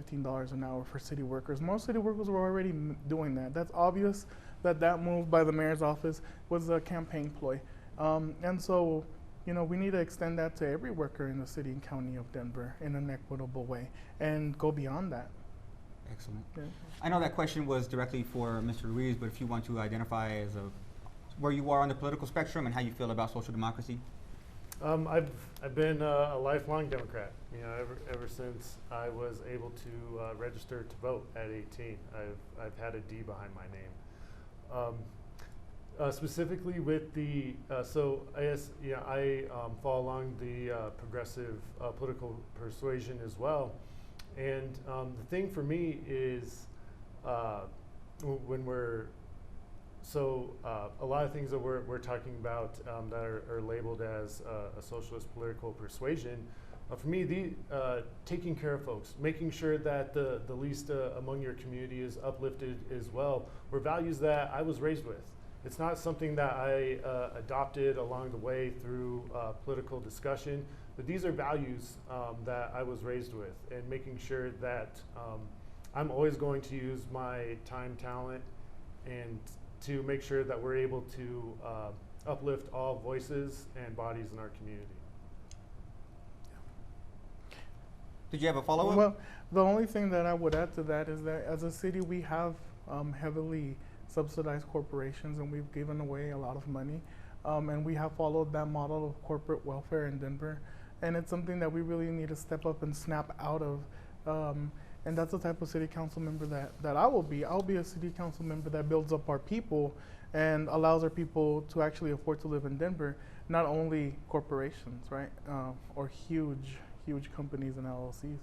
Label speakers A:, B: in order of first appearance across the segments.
A: fifteen dollars an hour for city workers. Most city workers were already m- doing that. That's obvious that that move by the mayor's office was a campaign ploy, um, and so you know we need to extend that to every worker in the city and county of Denver in an equitable way and go beyond that.
B: Excellent.
A: Yeah.
B: I know that question was directly for Mr. Ruiz, but if you want to identify as a where you are on the political spectrum and how you feel about social democracy.
C: Um, I've, I've been uh, a lifelong Democrat. You know, ever, ever since I was able to uh, register to vote at 18, I've, I've had a D behind my name. Um, uh, specifically with the, uh, so I guess, yeah, I um, fall along the uh, progressive uh, political persuasion as well. And um, the thing for me is uh, w- when we're so uh, a lot of things that we're, we're talking about um, that are, are labeled as uh, a socialist political persuasion, uh, for me, the uh, taking care of folks, making sure that the, the least uh, among your community is uplifted as well, were values that I was raised with. It's not something that I uh, adopted along the way through uh, political discussion, but these are values um, that I was raised with, and making sure that um, I'm always going to use my time, talent, and to make sure that we're able to uh, uplift all voices and bodies in our community.
B: Did you have a follow up?
A: Well, the only thing that I would add to that is that as a city, we have um, heavily subsidized corporations and we've given away a lot of money. Um, and we have followed that model of corporate welfare in Denver. And it's something that we really need to step up and snap out of. Um, and that's the type of city council member that, that I will be. I'll be a city council member that builds up our people and allows our people to actually afford to live in Denver, not only corporations, right? Uh, or huge, huge companies and LLCs.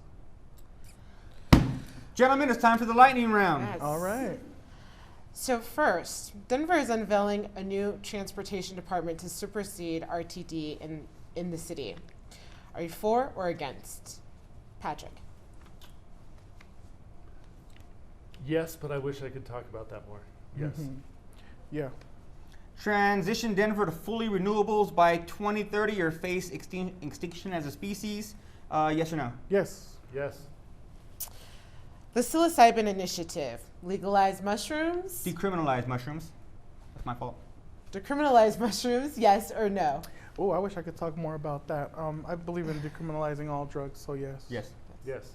B: Gentlemen, it's time for the lightning round.
D: Yes.
A: All right.
D: So first, Denver is unveiling a new transportation department to supersede RTD in, in the city. Are you for or against? Patrick.
C: Yes, but I wish I could talk about that more. Yes.
A: Mhm. Yeah.
B: Transition Denver to fully renewables by 2030 or face extin- extinction as a species. Uh, yes or no?
A: Yes.
C: Yes.
D: The psilocybin initiative, legalize mushrooms,
B: Decriminalize mushrooms. That's my fault.
D: decriminalize mushrooms, yes or no?
A: Oh, I wish I could talk more about that. Um, I believe in decriminalizing all drugs, so yes.
B: Yes.
C: Yes.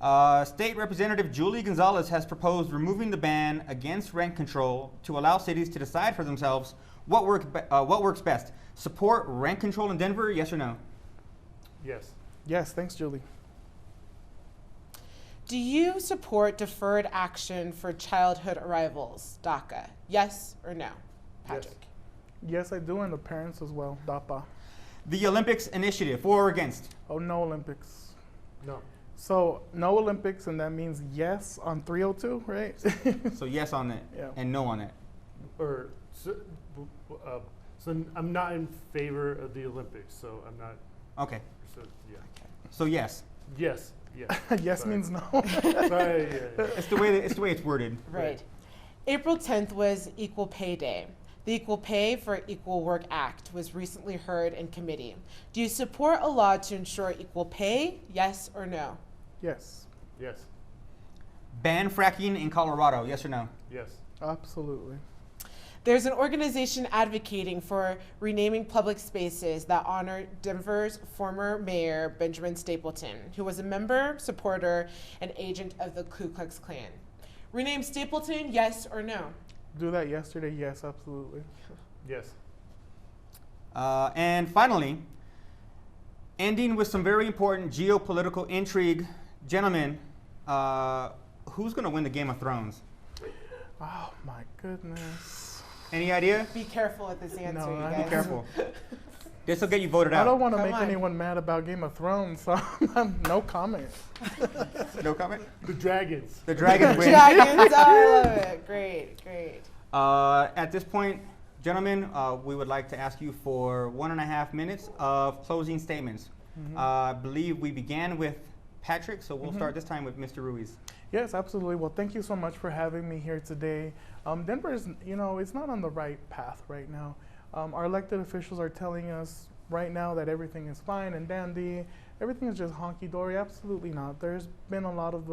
B: Uh, State Representative Julie Gonzalez has proposed removing the ban against rent control to allow cities to decide for themselves what, work be- uh, what works best. Support rent control in Denver? Yes or no?
C: Yes.
A: Yes. Thanks, Julie.
D: Do you support deferred action for childhood arrivals, DACA? Yes or no? Patrick.
A: Yes, I do, and the parents as well. DAPA.
B: The Olympics Initiative, for or against?
A: Oh, no Olympics.
C: No.
A: So no Olympics, and that means yes on 302, right?
B: So, yes on it
A: Yeah.
B: and no on it.
C: Or so, w- w- uh, so n- I'm not in favor of the Olympics, so I'm not.
B: Okay.
C: So yeah.
B: So, yes.
C: Yes. Yes.
A: yes
C: Sorry.
A: means no.
C: Sorry, yeah, yeah.
B: It's the way, that, it's, the way it's worded.
D: Right.
C: Right.
D: April 10th was Equal Pay Day. The Equal Pay for Equal Work Act was recently heard in committee. Do you support a law to ensure equal pay? Yes or no?
A: yes.
C: Yes.
B: Ban fracking in Colorado? Yes or no?
C: Yes.
A: Absolutely.
D: There's an organization advocating for renaming public spaces that honor Denver's former mayor, Benjamin Stapleton, who was a member, supporter, and agent of the Ku Klux Klan. Rename Stapleton, yes or no?
A: Do that yesterday. Yes, absolutely.
C: Yes.
B: Uh, and finally, ending with some very important geopolitical intrigue. Gentlemen, uh, who's going to win the Game of Thrones?
A: Oh my goodness.
B: Any idea?
D: Be careful with this answer,
A: No,
D: you
A: I-
D: guys.
B: Be careful. this will get you voted
A: I
B: out.
A: don't want to
D: Come
A: make
D: on.
A: anyone mad about Game of Thrones, so no comment.
B: no comment?
C: The dragons.
B: The Dragons win.
D: Dragons, oh, I love it. Great, great.
B: Uh, at this point, gentlemen, uh, we would like to ask you for one and a half minutes of closing statements.
A: Mm-hmm.
B: Uh, I believe we began with Patrick, so we'll start this time with Mr. Ruiz.
A: Yes, absolutely. Well, thank you so much for having me here today. Um, Denver is, you know, it's not on the right path right now. Um, our elected officials are telling us right now that everything is fine and dandy, everything is just honky dory. Absolutely not. There's been a lot of